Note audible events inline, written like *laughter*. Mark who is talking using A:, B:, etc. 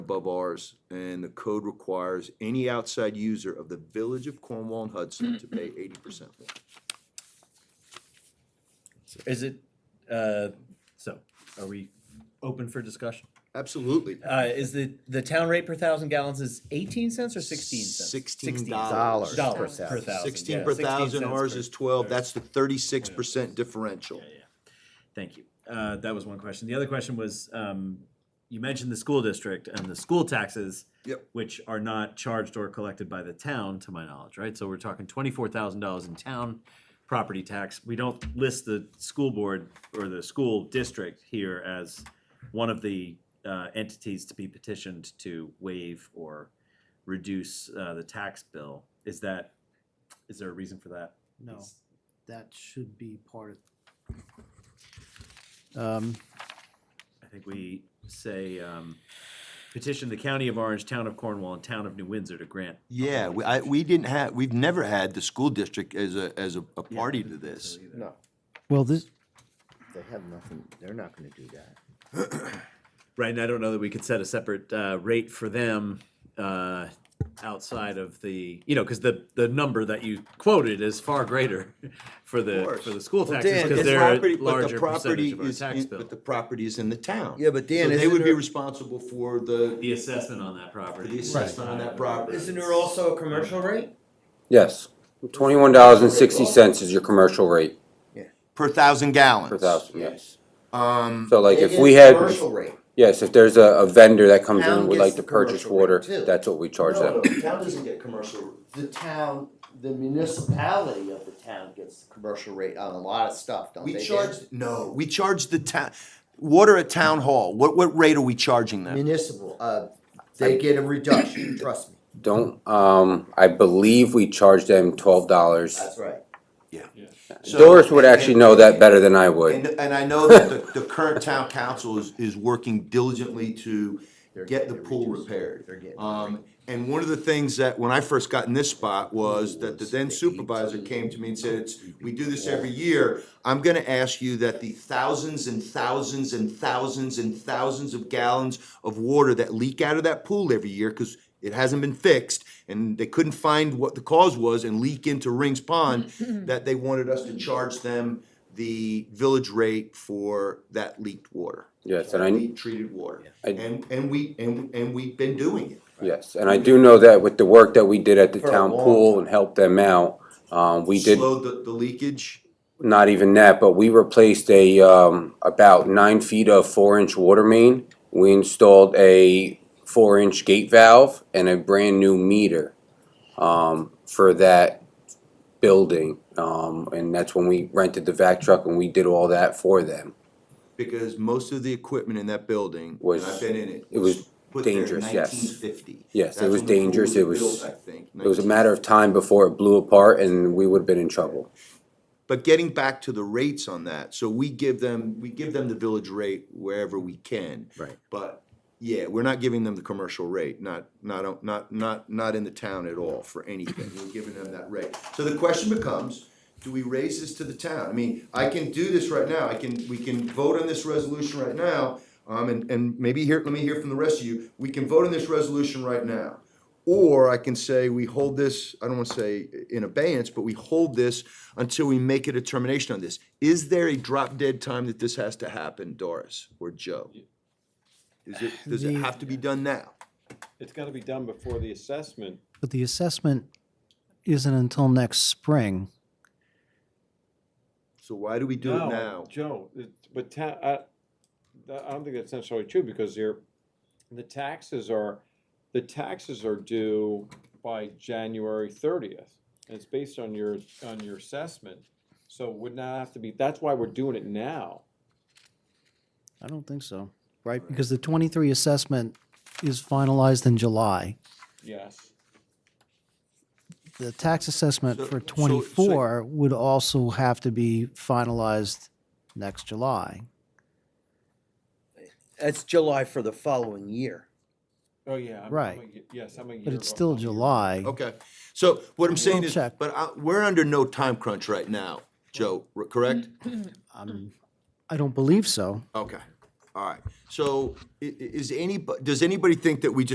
A: above ours, and the code requires any outside user of the Village of Cornwall and Hudson to pay eighty percent.
B: Is it, uh, so, are we open for discussion?
A: Absolutely.
B: Uh, is the, the town rate per thousand gallons is eighteen cents or sixteen cents?
A: Sixteen
C: dollars.
B: Dollars
C: per
B: per
C: thousand.
B: thousand.
A: Sixteen
B: yeah,
A: per thousand,
B: cents
A: ours
B: per-
A: is twelve, that's the thirty-six percent differential.
B: Yeah, yeah. Thank you. Uh, that was one question. The other question was, um, you mentioned the school district and the school taxes.
A: Yep.
B: Which are not charged or collected by the town, to my knowledge, right? So we're talking twenty-four thousand dollars in town property tax. We don't list the school board or the school district here as one of the, uh, entities to be petitioned to waive or reduce, uh, the tax bill. Is that, is there a reason for that?
D: No,
B: It's-
D: that should be part of. Um,
B: I think we say, um, petition the county of Orange, town of Cornwall, and town of New Windsor to grant.
A: Yeah, we, I, we didn't have, we've never had the school district as a, as a, a party to this.
C: No,
D: Well, this,
C: they have nothing, they're not gonna do that.
B: Right, and I don't know that we could set a separate, uh, rate for them, uh, outside of the, you know, cause the, the number that you quoted is far greater *laughs* for
A: Of
B: the,
A: course.
B: for the school
C: Well,
B: taxes,
C: Dan,
B: cause
C: it's
B: they're
A: Property-
B: a
A: but the
B: larger percentage
A: property
B: of our
A: is
B: tax
A: in-
B: bill.
A: But the property is in the town.
C: Yeah, but Dan,
A: So They
C: isn't
A: would be
C: there-
A: responsible for the,
B: The assessment on that property.
A: the assessment on that property.
E: also a commercial rate?
F: Yes, twenty-one dollars and sixty cents is your commercial rate
A: Per thousand gallons.
F: per thousand, yes.
A: Um,
F: So like
C: It
F: if
C: is
F: we had,
C: Commercial rate.
F: yes, if there's a, a vendor that comes in
C: Town
F: and would like
C: gets
F: to
C: the
F: purchase
C: commercial rate
F: water,
C: too.
F: that's what we charge
C: No,
F: them.
C: no, the
A: town
C: town
A: doesn't
C: doesn't
A: get commercial.
C: The town, the municipality of the town gets the commercial rate on a lot of stuff, don't they?
A: We
C: Dan?
A: charge, no, we charge the town, water at town hall, what, what rate are we charging them?
C: Municipal, uh, they get a reduction, trust me,
F: Don't, um, I believe we charge them twelve dollars.
C: that's right.
A: So-
F: Doris would actually know that better than I would.
A: And, and I know that the, the current town council is, is working diligently to
C: They're
A: get the
C: getting
A: pool
C: reduced.
A: repaired.
C: They're getting-
A: Um, and one of the things that, when I first got in this spot, was that the then supervisor came to me and said, it's, we do this every year. I'm gonna ask you that the thousands and thousands and thousands and thousands of gallons of water that leak out of that pool every year, cause it hasn't been fixed, and they couldn't find what the cause was and leak into Rings
C: *laughs*
A: Pond, that they wanted us to charge them the village rate for that leaked water.
F: Yes, and I,
A: Leak Treated water.
F: I-
A: And, and we, and, and we've been doing it.
F: Yes, and I do know that with the work that we did at the
C: For a
F: town
C: long
F: pool and helped them out, um, we did,
A: Slowed the, the leakage.
F: not even that, but we replaced a, um, about nine feet of four-inch water main. We installed a four-inch gate valve and a brand-new meter, um, for that building. Um, and that's when we rented the vac truck and we did all that for them.
A: Because most of the equipment in that building, and
F: Was-
A: I've been in it.
F: it was
A: put there in
F: dangerous, yes.
A: 1950.
F: Yes, it
A: That's
F: was
A: when the pool
F: dangerous, it was-
A: built, I think,
F: It was a matter of time before it blew apart and we would've been in trouble.
A: But getting back to the rates on that, so we give them, we give them the village rate wherever we can.
F: Right.
A: But, yeah, we're not giving them the commercial rate, not, not, not, not, not in the town at all for anything, we're giving them that rate. So the question becomes, do we raise this to the town? I mean, I can do this right now, I can, we can vote on this resolution right now, um, and, and maybe here, let me hear from the rest of you, we can vote on this resolution right now. Or I can say, we hold this, I don't wanna say in abeyance, but we hold this until we make a determination on this. Is there a drop dead time that this has to happen, Doris or Joe? Is it, does it
D: The-
A: have to be done now?
G: It's gotta be done before the assessment.
D: but the assessment isn't until next spring.
A: So why do we do it
G: No,
A: now?
G: Joe, it- but ta- I, I don't think that's necessarily true, because you're, the taxes are, the taxes are due by January thirtieth. And it's based on your, on your assessment, so it would not have to be, that's why we're doing it now.
D: I don't think so. Right, because the twenty-three assessment is finalized in July.
G: Yes.
D: The tax assessment
A: So- so-
D: for
A: so-
D: twenty-four would also have to be finalized next July.
E: That's July for the following year.
G: Oh, yeah. I'm- I'm
D: Right.
G: a ye- Yes, I'm a year.
D: But it's
G: behind
D: still
G: you.
D: July.
A: Okay, so what I'm saying
D: We'll
A: is,
D: check.
A: but I- we're under no time crunch
D: Mm-hmm.
A: right now, Joe, r- correct?
D: I'm, I don't Um, believe so.
A: Okay, All right, so i- i- is any, does anybody think that we just